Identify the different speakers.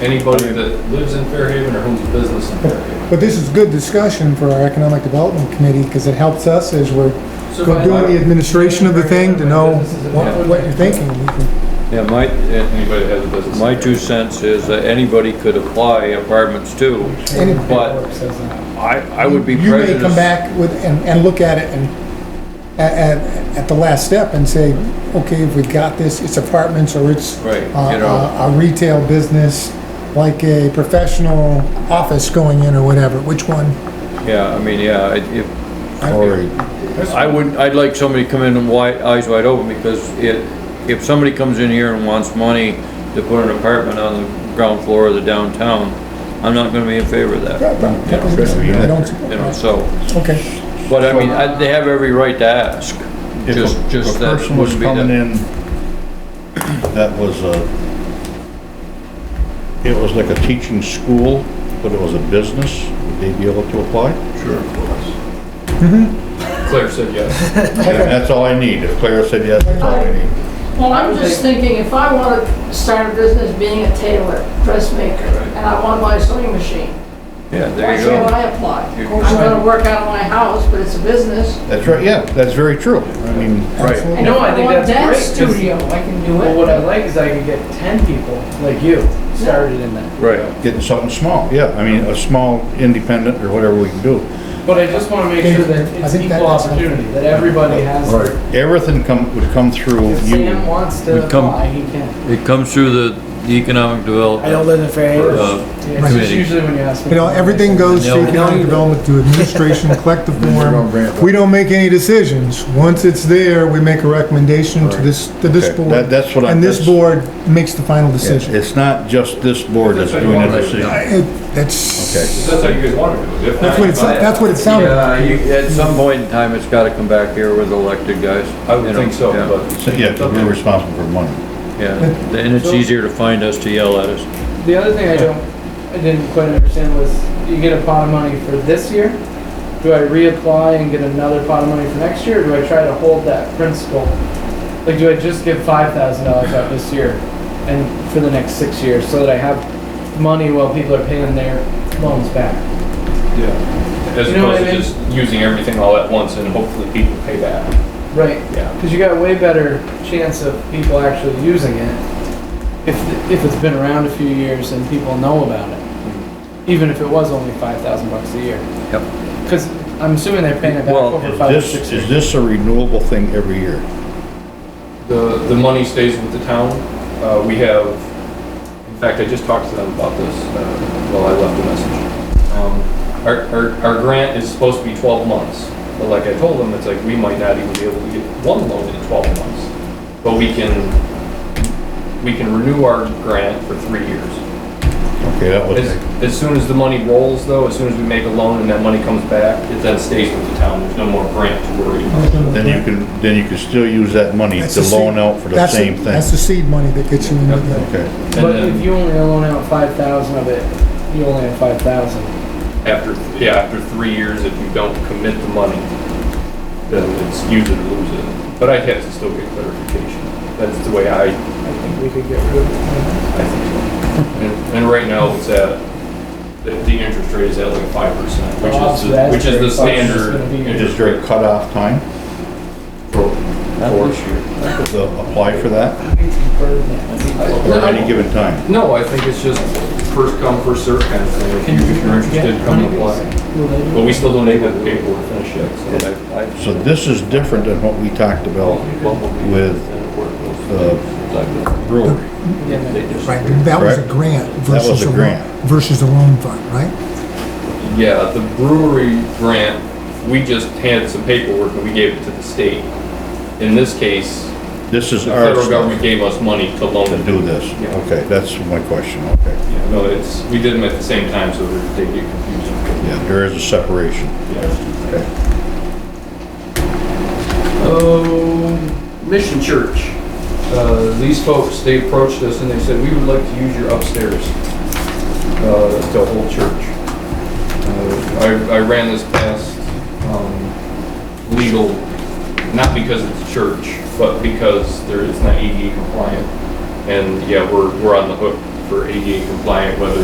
Speaker 1: Anybody that lives in Fairhaven or owns a business in Fairhaven.
Speaker 2: But this is good discussion for our Economic Development Committee because it helps us as we're
Speaker 1: So
Speaker 2: we're
Speaker 1: if I-
Speaker 2: doing the administration of the thing to know what what you're thinking. We can-
Speaker 3: Yeah, my, eh,
Speaker 1: Anybody that has a business. in
Speaker 3: my two
Speaker 1: Fairhaven.
Speaker 3: cents is that anybody could apply apartments too,
Speaker 2: Anybody.
Speaker 3: but I, I would be
Speaker 2: You may
Speaker 3: prejudiced.
Speaker 2: come back with, and, and look at it and, at, at, at the last step and say, okay, if we got this, it's apartments or it's
Speaker 3: Right,
Speaker 2: uh,
Speaker 3: you know,
Speaker 2: uh, a retail business, like a professional office going in or whatever, which one?
Speaker 3: yeah, I mean, yeah, I- if,
Speaker 4: Or
Speaker 3: I would, I'd like somebody to come in and wide, eyes wide open, because it, if somebody comes in here and wants money to put an apartment on the ground floor of the downtown, I'm not gonna be in favor of that,
Speaker 2: I
Speaker 3: you
Speaker 2: don't,
Speaker 3: know, so.
Speaker 2: okay,
Speaker 3: But I mean, I- they have every right to ask,
Speaker 4: if
Speaker 3: just,
Speaker 4: a-
Speaker 3: just that
Speaker 4: A person was
Speaker 3: wouldn't be
Speaker 4: coming
Speaker 3: the.
Speaker 4: in that was a, it was like a teaching school, but it was a business, would they be able to apply?
Speaker 1: Claire said yes.
Speaker 4: And that's all I need. If Clara said yes, that's all I need.
Speaker 5: Well, I'm just thinking, if I want to start a business being a tailor, dressmaker, and I want my sewing machine,
Speaker 3: Yeah, there
Speaker 5: why
Speaker 3: you
Speaker 5: should
Speaker 3: go.
Speaker 5: I apply?
Speaker 3: You-
Speaker 5: I'm going to work out of my house, but it's a business.
Speaker 4: That's right, yeah, that's very true. I mean,
Speaker 3: Right,
Speaker 5: And
Speaker 6: No, I
Speaker 5: if
Speaker 6: think
Speaker 5: want
Speaker 6: that's
Speaker 5: that
Speaker 6: great, 'cause-
Speaker 5: Studio, I can do
Speaker 6: Well,
Speaker 5: it.
Speaker 6: what I like is I could get ten people like you started in that.
Speaker 3: right.
Speaker 4: getting something small, yeah, I mean, a small independent or whatever we can do.
Speaker 6: But I just wanna make sure that
Speaker 2: I
Speaker 6: it's
Speaker 2: think that-
Speaker 6: equal opportunity, that everybody has. their-
Speaker 4: Everything come, would come through
Speaker 6: If
Speaker 4: you.
Speaker 6: Sam wants to
Speaker 3: We come-
Speaker 6: apply, he can.
Speaker 3: It comes through the the economic development.
Speaker 6: live in Fairhaven.
Speaker 3: Uh,
Speaker 6: Yeah, it's just
Speaker 3: committee.
Speaker 6: usually when you ask me.
Speaker 2: you know, everything goes
Speaker 3: No.
Speaker 2: to economic development, to administration, collective form. We don't make any decisions. Once it's there, we make a recommendation to this, to this
Speaker 4: Okay,
Speaker 2: board.
Speaker 4: that- that's what I'm-
Speaker 2: And this
Speaker 4: that's-
Speaker 2: board makes the final decision.
Speaker 4: It's not just this board that's doing the decision.
Speaker 2: It- That's,
Speaker 4: Okay.
Speaker 1: If That's how you guys want to do it. If
Speaker 2: that's
Speaker 1: not,
Speaker 2: what it's,
Speaker 1: you buy
Speaker 2: that's what it sounded like.
Speaker 3: Yeah, you, at some point in time, it's gotta come back here with elected guys.
Speaker 1: I would
Speaker 3: you know,
Speaker 1: think so,
Speaker 3: yeah,
Speaker 1: but.
Speaker 4: So, Yeah, 'cause we're responsible for money.
Speaker 3: Yeah, and it's easier to find us to yell at us.
Speaker 6: The other thing I don't, I didn't quite understand was, you get a pot of money for this year? Do I reapply and get another pot of money for next year, or do I try to hold that principal? Like, do I just give five thousand dollars out this year and for the next six years, so that I have money while people are paying their loans back?
Speaker 1: Yeah. As
Speaker 6: You know what
Speaker 1: opposed to
Speaker 6: I mean?
Speaker 1: just using everything all at once and hopefully people pay back.
Speaker 6: Right.
Speaker 1: Yeah.
Speaker 6: Because you got a way better chance of people actually using it if, if it's been around a few years and people know about it. Even if it was only five thousand bucks a year.
Speaker 3: Yep.
Speaker 6: Because I'm assuming they're paying it back
Speaker 3: Well,
Speaker 6: over
Speaker 4: Is
Speaker 6: five or
Speaker 4: this,
Speaker 6: six
Speaker 4: is
Speaker 6: years.
Speaker 4: this a renewable thing every year?
Speaker 1: The, the money stays with the town. Uh, we have, in fact, I just talked to them about this, uh, while I left a message. Um, our, our, our grant is supposed to be twelve months, but like I told them, it's like, we might not even be able to get one loan in twelve months. But we can, we can renew our grant for three years.
Speaker 4: Okay, that was,
Speaker 1: As, as soon as the money rolls though, as soon as we make a loan and that money comes back, it then stays with the town. There's no more grant to worry about.
Speaker 4: then you can, then you can still use that money
Speaker 2: That's
Speaker 4: to
Speaker 2: the seed-
Speaker 4: loan out for the
Speaker 2: that's
Speaker 4: same
Speaker 2: That's
Speaker 4: thing.
Speaker 2: the seed money that gets you into the.
Speaker 4: Okay,
Speaker 1: And
Speaker 6: But if
Speaker 1: then
Speaker 6: you only loan out five thousand of it, you only have five thousand.
Speaker 1: after, yeah, after three years, if you don't commit the money, then it's use it or lose it. But I'd have to still get clarification. That's the way I,
Speaker 6: I think we could get rid of
Speaker 1: I
Speaker 6: it.
Speaker 1: think. And, and right now it's at, the, the interest rate is at like five percent, which
Speaker 6: Oh,
Speaker 1: is,
Speaker 6: so
Speaker 1: the-
Speaker 6: that's
Speaker 1: which is the
Speaker 6: great. So it's just
Speaker 1: standard
Speaker 6: gonna be-
Speaker 4: is
Speaker 1: interest
Speaker 4: there a cutoff time
Speaker 1: for, for sure.
Speaker 4: to apply for that,
Speaker 6: It's a burden that we-
Speaker 4: or any given time?
Speaker 1: No, I think it's just first come, first served kind of thing. If you- if you're interested,
Speaker 6: Yeah,
Speaker 1: come
Speaker 6: honeybees.
Speaker 1: apply.
Speaker 6: Will they do
Speaker 1: But we still don't have the paperwork finished yet, so I, I.
Speaker 4: So this is different than what we talked about with the brewery.
Speaker 6: it? Yeah, no.
Speaker 2: Right, that was a
Speaker 4: Correct.
Speaker 2: grant
Speaker 4: That was
Speaker 2: versus
Speaker 4: a
Speaker 2: a loan,
Speaker 4: grant.
Speaker 2: versus a loan fund, right?
Speaker 1: Yeah, the brewery grant, we just had some paperwork and we gave it to the state. In this case,
Speaker 4: This
Speaker 1: the
Speaker 4: is our
Speaker 1: federal
Speaker 4: stuff
Speaker 1: government gave us money to loan
Speaker 4: to
Speaker 1: it.
Speaker 4: do this.
Speaker 1: Yeah.
Speaker 4: Okay, that's my question, okay.
Speaker 1: Yeah, No, it's, we did them at the same time, so they get confusing.
Speaker 4: Yeah, there is a separation. Okay.
Speaker 1: Um, Mission Church. Uh, these folks, they approached us and they said, we would like to use your upstairs, uh, to hold church. Uh, I, I ran this past, um, legal, not because it's a E church, but because there, it's not ADA compliant. And yeah, we're, we're on the hook E
Speaker 3: for ADA compliant, whether